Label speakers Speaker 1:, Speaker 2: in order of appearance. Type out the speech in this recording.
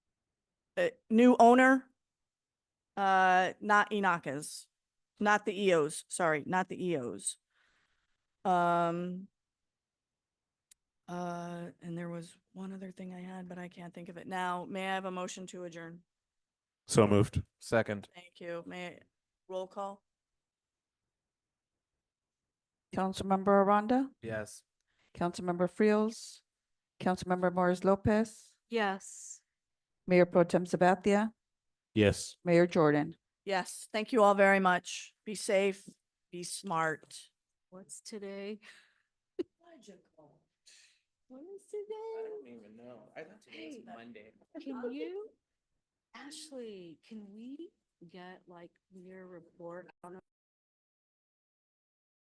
Speaker 1: uh, new owner, uh, not Inaka's, not the EOs, sorry, not the EOs. Um, uh, and there was one other thing I had, but I can't think of it now. May I have a motion to adjourn?
Speaker 2: So moved.
Speaker 3: Second.
Speaker 1: Thank you. May, I- roll call?
Speaker 4: Councilmember Aranda,
Speaker 3: Yes.
Speaker 4: Councilmember Frios, Councilmember Morris Lopez,
Speaker 5: Yes.
Speaker 4: Mayor Pro Tem Sabathia,
Speaker 2: Yes.
Speaker 4: Mayor Jordan.
Speaker 1: Yes, thank you all very much. Be safe, be smart.
Speaker 5: What's today?
Speaker 1: Logical.
Speaker 5: What is today?
Speaker 3: even know. I thought
Speaker 5: today's Hey.
Speaker 3: Monday.
Speaker 5: Can you, Ashley, can we get like your report? I don't know